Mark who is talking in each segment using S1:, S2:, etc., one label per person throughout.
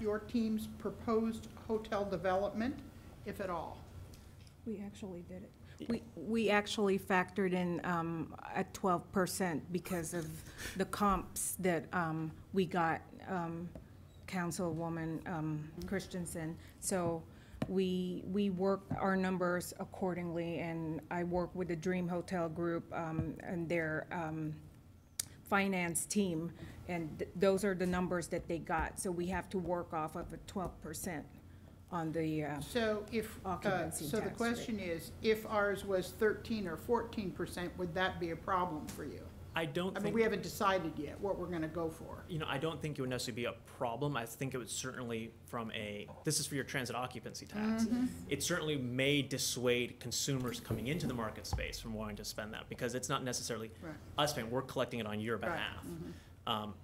S1: your team's proposed hotel development, if at all?
S2: We actually did it. We, we actually factored in um, a twelve percent because of the comps that um, we got, um, Councilwoman um, Christensen. So we, we work our numbers accordingly, and I work with the Dream Hotel Group um, and their um, finance team, and th- those are the numbers that they got. So we have to work off of a twelve percent on the uh,
S1: So if, uh,
S2: Occupancy
S1: so the
S2: tax rate.
S1: question is, if ours was thirteen or fourteen percent, would that be a problem for you?
S3: I don't
S1: I mean,
S3: think,
S1: we haven't decided yet what we're gonna go for.
S3: you know, I don't think it would necessarily be a problem. I think it would certainly from a, this is for your transit occupancy tax.
S1: Mm-hmm.
S3: It certainly may dissuade consumers coming into the market space from wanting to spend that because it's not necessarily
S1: Right.
S3: us paying, we're collecting it on your
S1: Right, Mm-hmm.
S3: behalf. Um,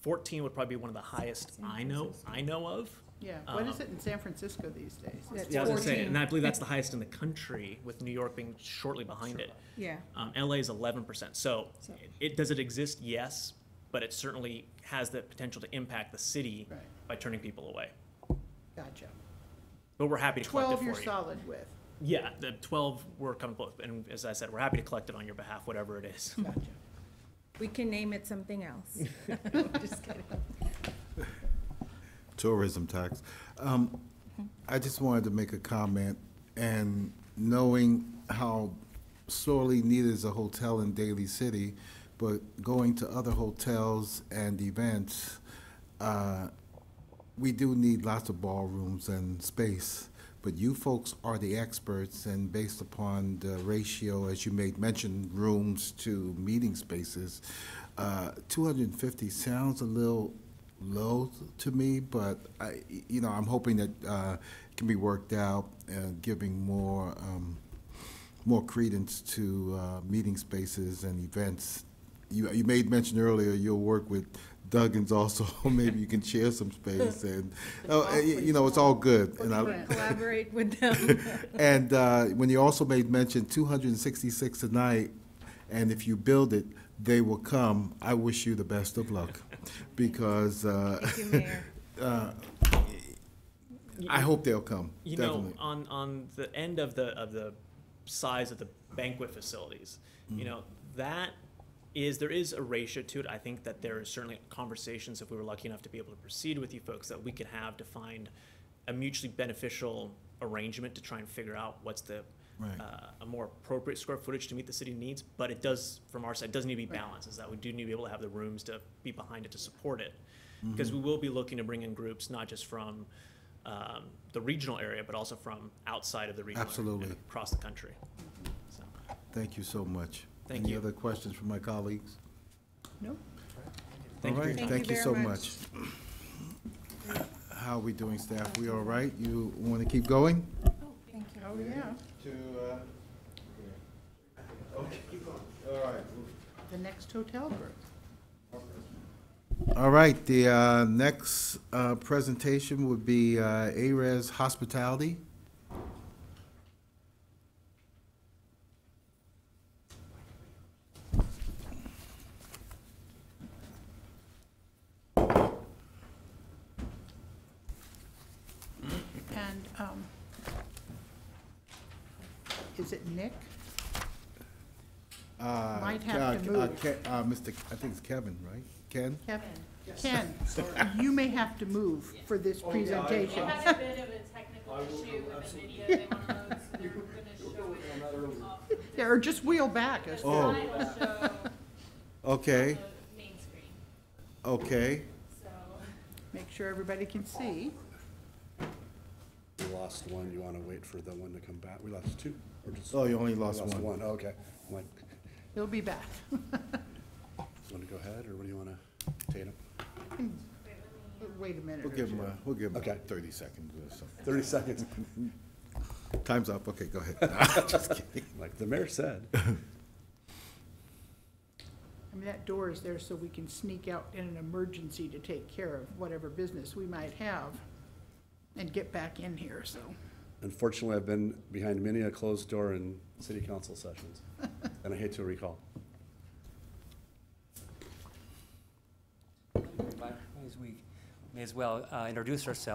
S3: Fourteen would probably be one of the highest I know, I know of.
S1: Yeah, what is
S3: Um,
S1: it in San Francisco these days?
S2: That's
S3: Yeah, I was gonna say,
S2: 14.
S3: and I believe that's the highest in the country with New York being shortly behind it.
S2: Yeah.
S3: Um, LA is eleven percent. So
S2: So-
S3: it, does it exist? Yes, but it certainly has the potential to impact the city
S1: Right.
S3: by turning people away.
S1: Gotcha.
S3: But we're happy to collect it
S1: Twelve
S3: for you.
S1: you're solid with,
S3: Yeah, the twelve we're comfortable, with, and as I said, we're happy to collect it on your behalf, whatever it is.
S1: gotcha.
S2: We can name it something else. Just kidding.
S4: tourism tax. Um, I just wanted to make a comment, and knowing how sorely needed is a hotel in Daly City, but going to other hotels and events, uh, we do need lots of ballrooms and space, but you folks are the experts, and based upon the ratio, as you made mention, rooms to meeting spaces, uh, 250 sounds a little low to me, but I, you know, I'm hoping that uh, it can be worked out, uh, giving more, um, more credence to uh, meeting spaces and events. You, you made mention earlier, you'll work with Duggins also, maybe you can share some space and, oh, eh, you know, it's all good. and I-
S1: Footprint.
S2: Collaborate with them.
S4: And uh, when you also made mention, 266 tonight, and if you build it, they will come. I wish you the best of luck, because uh,
S2: Thank you, Mayor.
S4: uh, I hope they'll come,
S3: You know,
S4: definitely.
S3: on, on the end of the, of the size of the banquet facilities, you
S4: Mm.
S3: know, that is, there is a ratio to it. I think that there is certainly conversations, if we were lucky enough to be able to proceed with you folks, that we could have to find a mutually beneficial arrangement to try and figure out what's the,
S4: Right.
S3: uh, a more appropriate square footage to meet the city needs, but it does, from our side, it does need to be balanced, is that we do need to be able to have the rooms to be behind it to support it.
S4: Mm-hmm.
S3: Because we will be looking to bring in groups, not just from, um, the regional area, but also from outside of the regional. area
S4: Absolutely. Mm-hmm.
S3: and Across the country. So,
S4: Thank you so much.
S3: Thank
S4: Any
S3: you.
S4: other questions from my colleagues?
S1: No?
S3: Thank you
S4: All
S3: for your
S4: right,
S3: time.
S4: Thank you
S2: very
S4: so much.
S2: much.
S4: How are we doing, staff? We all right? You want to keep going?
S1: Oh, yeah,
S4: To, uh, all right.
S1: the next hotel group.
S4: All right, the uh, next uh, presentation would be uh, ARES Hospitality.
S1: And, um, is it Nick?
S4: Uh,
S1: Might
S4: Ke-
S1: have to
S4: uh,
S1: move.
S4: Ke- uh, Mr., K- I think it's Kevin, right? Ken?
S1: Kevin? Ken, you may have to move for this
S4: Oh,
S5: They
S1: presentation.
S5: had a bit of a technical issue with the video they want to load, so they're gonna show it off.
S1: Yeah, Or just wheel back.
S5: The
S1: It's-
S4: Oh.
S5: slide will show
S4: Okay,
S5: the main screen,
S4: okay.
S5: so.
S1: Make sure everybody can see.
S6: We lost one, you wanna wait for the one to come back? We lost two, or just?
S4: Oh, you only
S6: We
S4: lost one.
S6: one, okay. I'm like,
S1: He'll be back.
S6: wanna go ahead, or what do you wanna, Tatum?
S1: Wait a minute
S4: We'll
S1: or
S4: give him,
S1: two.
S4: a- we'll give him
S6: Okay.
S4: 30 seconds or something.
S6: Thirty seconds.
S4: Time's up, okay, go ahead.
S6: Like the mayor said.
S1: I mean, that door is there so we can sneak out in an emergency to take care of whatever business we might have and get back in here, so.
S6: Unfortunately, I've been behind many a closed door in city council sessions, and I hate to recall.
S7: Last week, may as well uh, introduce ourselves.